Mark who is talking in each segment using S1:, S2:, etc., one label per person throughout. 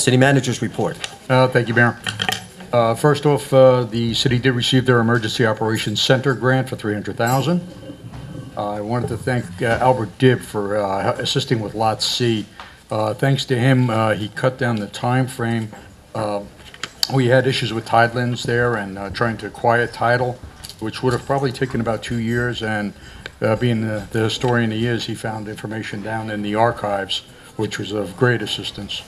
S1: City Manager's Report.
S2: Uh, Thank you, Mayor. Uh, First off, uh, the city did receive their Emergency Operations Center grant for $300,000. Uh, I wanted to thank uh, Albert Dibb for uh, assisting with Lot C. Uh, Thanks to him, uh, he cut down the time timeframe. Uh, We had issues with tidelands there and uh, trying to quiet title, which would have probably taken about two years, and uh, being the the historian he is, he found information down in the archives, which was of great assistance.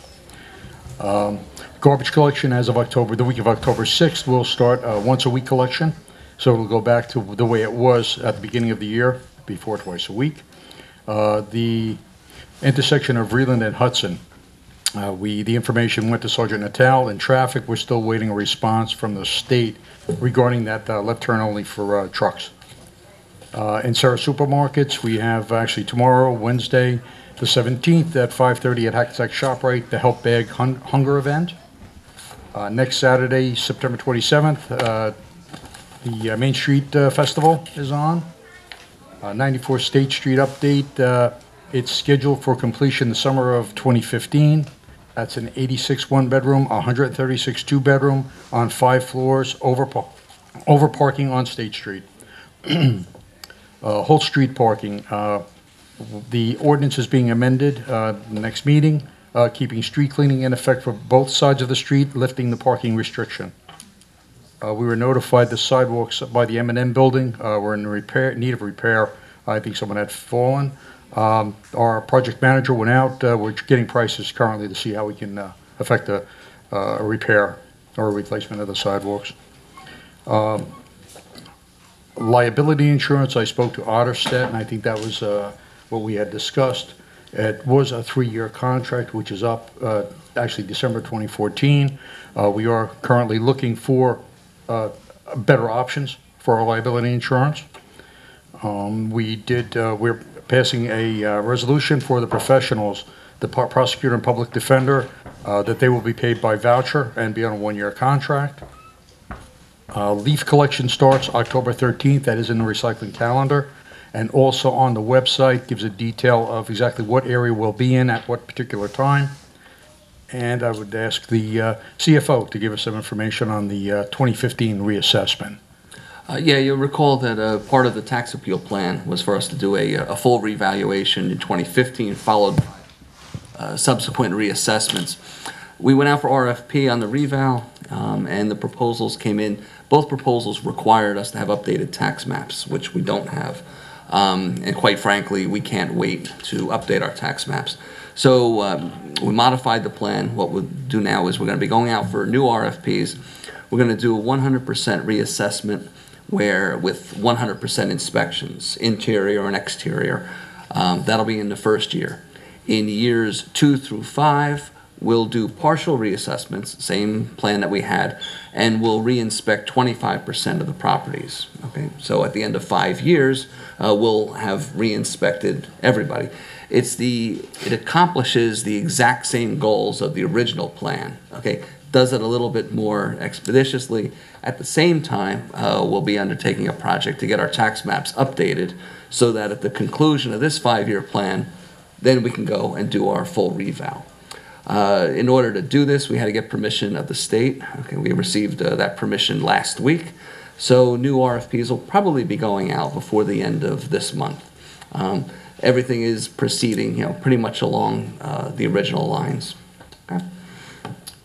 S2: Garbage collection as of October, the week of October 6th, we'll start uh, a once-a-week collection. So it'll go back to the way it was at the beginning of the year, before twice a week. Uh, The intersection of Reland and Hudson, uh, we, the information went to Sergeant Natal in traffic. We're still waiting a response from the state regarding that uh, left turn only for uh, trucks. Uh, In Sarah Supermarkets, we have actually tomorrow, Wednesday, the 17th, at 5:30 at Hackensack ShopRite, the Help Bag Hun- Hunger Event. Uh, Next Saturday, September 27th, uh, the uh, Main Street uh, Festival is on. Uh, 94 State Street update, uh, it's scheduled for completion the summer of 2015. That's an 86 one-bedroom, 136 two-bedroom, on five floors, over pa- over parking on State Street uh, Holt Street parking. uh, The ordinance is being amended, uh, the next meeting, uh, keeping street cleaning in effect for both sides of the street, lifting the parking restriction. Uh, We were notified the sidewalks by the m and M building uh, were in repair, need of repair. I think someone had fallen. Um, Our project manager went out, uh, we're getting prices currently to see how we can uh, affect a uh, a repair or replacement of the sidewalks. Liability insurance, I spoke to Otterstedt, and I think that was uh, what we had discussed. It was a three-year contract, which is up, uh, actually December 2014. Uh, We are currently looking for uh, better options for our liability insurance. Um, We did, uh, we're passing a uh, resolution for the professionals, the pro- prosecutor and public defender, uh, that they will be paid by voucher and be on a one-year contract. Uh, Leaf collection starts October 13th, that is in the recycling calendar, and also on the website gives a detail of exactly what area we'll be in at what particular time. And I would ask the uh, CFO to give us some information on the uh, 2015 reassessment.
S3: Uh, Yeah, you'll recall that uh, part of the tax appeal plan was for us to do a, a full revaluation in 2015, followed by uh, subsequent reassessments. We went out for RFP on the reval, um, and the proposals came in. Both proposals required us to have updated tax maps, which we don't have. Um, and quite frankly, we can't wait to update our tax maps. So um, we modified the plan. What we'll do now is we're going to be going out for new RFPs. We're going to do a 100% reassessment where with 100% inspections, interior and exterior. Um, that'll be in the first year. In years two through five, we'll do partial reassessments, same plan that we had, and we'll reinspect 25% of the properties. Okay, so at the end of five years, uh, we'll have reinspected everybody. It's the it accomplishes the exact same goals of the original plan. Okay, does it a little bit more expeditiously. At the same time, uh, we'll be undertaking a project to get our tax maps updated so that at the conclusion of this five-year plan, then we can go and do our full revow. Uh, in order to do this, we had to get permission of the state. Okay, we received uh, that permission last week. So new RFPs will probably be going out before the end of this month. Um, everything is proceeding, you know, pretty much along uh, the original lines. Okay.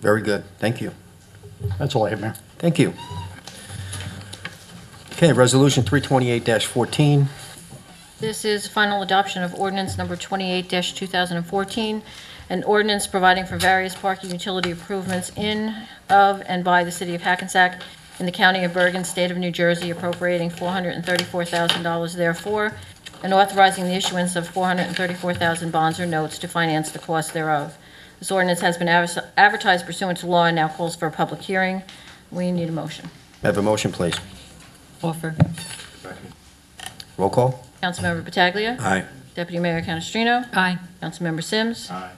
S1: Very good, thank you.
S2: That's all I have, Mayor.
S1: Thank you. Okay, Resolution 328-14,
S4: This is final adoption of ordinance number 28-2014, an ordinance providing for various parking utility improvements in, of, and by the city of Hackensack in the county of Bergen, state of New Jersey appropriating $434,000 therefore, and authorizing the issuance of 434,000 bonds or notes to finance the cost thereof. This ordinance has been adver- advertised pursuant to law and now calls for a public hearing. We need a motion.
S1: May I have a motion, please.
S4: Offer.
S1: Roll call?
S4: Councilmember Pataglia.
S1: Aye.
S4: Deputy Mayor Canestrino.
S5: Aye.
S4: Councilmember Sims.
S2: Aye.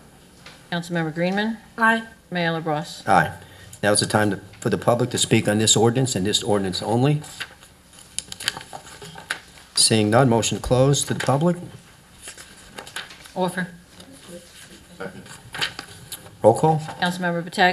S4: Councilmember Greenman.
S5: Aye.
S4: Mayor LaBrus.
S1: Aye. Now is the time to- for the public to speak on this ordinance and this ordinance only. Seeing none, motion closed to the public.
S5: Offer.
S1: Roll call?
S4: Councilmember Pataglia.